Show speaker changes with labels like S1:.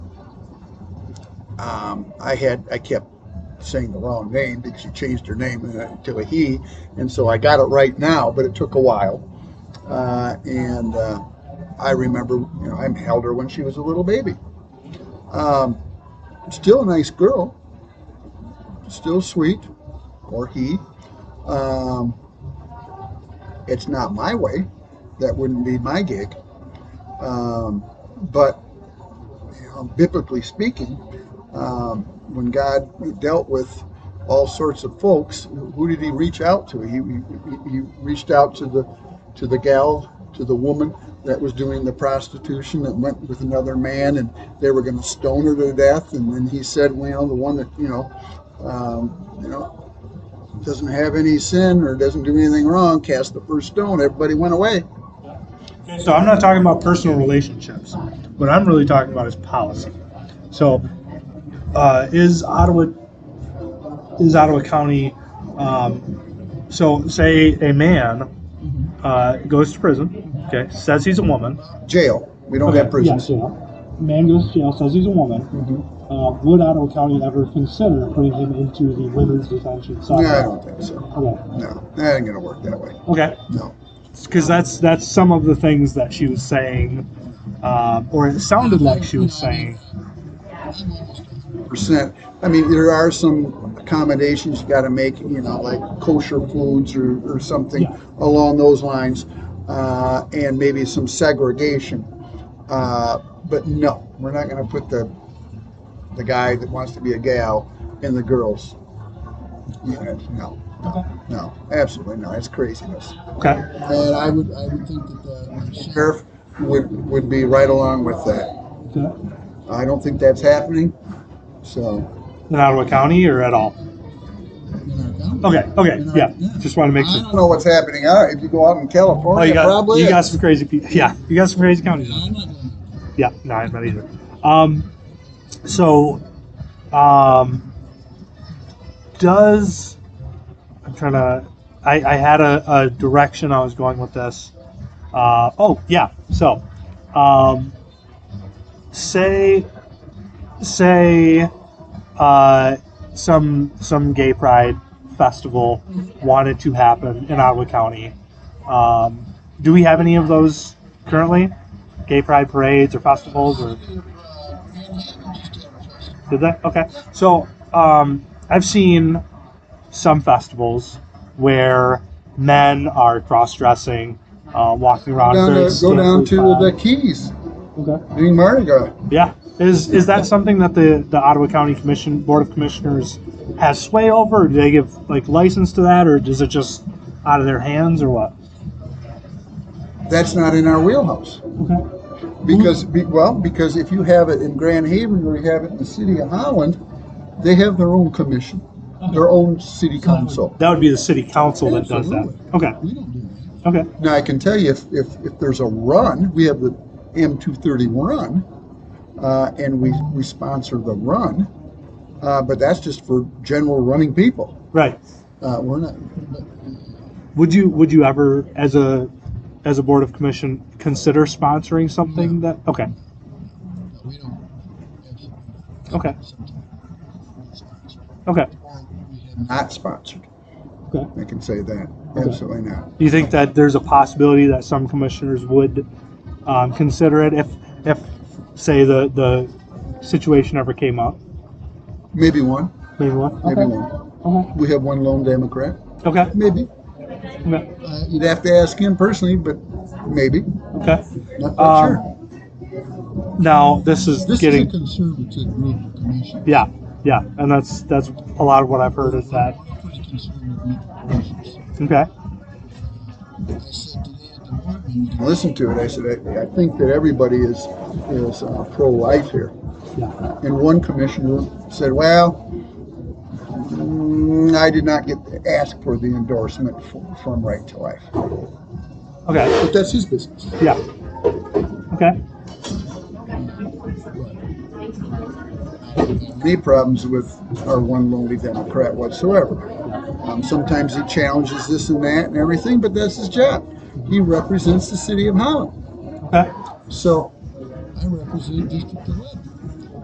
S1: um, I had, I kept saying the wrong name because she changed her name uh, to a he. And so I got it right now, but it took a while. Uh, and uh, I remember, you know, I held her when she was a little baby. Um, still a nice girl, still sweet, or he. Um, it's not my way. That wouldn't be my gig. Um, but you know, biblically speaking, um, when God dealt with all sorts of folks, who did He reach out to? He, he, he reached out to the to the gal, to the woman that was doing the prostitution that went with another man, and they were going to stone her to death. And then He said, "Well, the one that you know, um, you know." Doesn't have any sin or doesn't do anything wrong, cast the first stone. Everybody went away.
S2: So I'm not talking about personal relationships. What I'm really talking about is policy. So uh, is Ottawa is Ottawa County? Um, so say a man uh, goes to prison. Okay, says he's a woman.
S1: Jail. We don't
S2: okay,
S1: have Mm-hmm. prisons.
S2: Yeah, jail. Man goes to jail, says he's a woman. Uh, would Ottawa County ever consider putting him into the women's detention
S1: No,
S2: center?
S1: I don't think so.
S2: Okay.
S1: No, that ain't going to work that way.
S2: Okay.
S1: No.
S2: because that's that's some of the things that she was saying, um, or it sounded like she was saying.
S1: percent. I mean, there are some accommodations you got to make, you know, like kosher foods or, or something
S2: Yeah.
S1: along those lines, uh, and maybe some segregation. Uh, but no, we're not going to put the the guy that wants to be a gal in the girls' unit. No,
S2: Okay.
S1: no, absolutely not. It's craziness.
S2: Okay.
S1: And I would I would think that the sheriff would would be right along with that. I don't think that's happening. So.
S2: In Ottawa County or at all? Okay. Okay. Yeah. Just want to make
S1: I
S2: sure.
S1: don't know what's happening. All right, if you go out in California,
S2: Oh, you got
S1: probably
S2: you
S1: is.
S2: got some crazy people. Yeah, you got some crazy counties. Yeah. No, I'm not either. Um, so, um, does I'm trying to. I, I had a, a direction I was going with this. Uh, oh yeah. So, um, say say uh, some some gay pride festival wanted to happen in Ottawa County. Um, do we have any of those currently? Gay pride parades or festivals or did that? Okay. So um, I've seen some festivals where men are cross dressing, uh, walking around.
S1: Go down
S2: very
S1: to, go down to the
S2: scantily clad.
S1: Keys
S2: Okay.
S1: doing Mardi Gras.
S2: Yeah. Is is that something that the, the Ottawa County Commission Board of Commissioners has sway over? Do they give like license to that or is it just out of their hands or what?
S1: That's not in our wheelhouse
S2: Okay.
S1: because be, well, because if you have it in Grand Haven or you have it in the city of Holland, they have their own commission, their own city council.
S2: That would be the city council that does that. Okay.
S1: We don't do that.
S2: Okay.
S1: Now I can tell you if if, if there's a run, we have the M230 run, uh, and we we sponsor the run, uh, but that's just for general running people.
S2: Right.
S1: Uh, we're not.
S2: Would you would you ever as a as a board of commission consider sponsoring something that okay.
S3: We don't
S2: Okay.
S3: have
S2: Okay.
S1: not sponsored.
S2: Okay.
S1: I can say that.
S2: Okay.
S1: Absolutely not.
S2: Do you think that there's a possibility that some commissioners would um, consider it if if say the the situation ever came up?
S1: Maybe one.
S2: Maybe one.
S1: Maybe
S2: Okay.
S1: one.
S2: Okay.
S1: We have one lone Democrat.
S2: Okay.
S1: Maybe.
S2: Okay.
S1: Uh, you'd have to ask him personally, but maybe.
S2: Okay.
S1: Not, not
S2: Um,
S1: sure.
S2: Now this is
S3: This
S2: getting
S3: is a conservative group commission.
S2: yeah yeah, and that's that's a lot of what I've heard is that
S3: We're a pretty conservative group of commissioners.
S2: okay
S3: I said today at the board meeting,
S1: I listened to it. I said, I, I think that everybody is is uh, pro-life here.
S2: yeah
S1: And one commissioner said, well, mm, I did not get to ask for the endorsement f- from Right to Life.
S2: okay
S1: But that's his business.
S2: yeah okay
S1: any problems with our one lonely Democrat whatsoever. Um, sometimes he challenges this and that and everything, but that's his job. He represents the city of Holland.
S2: okay
S1: So
S3: I represent District Eleven.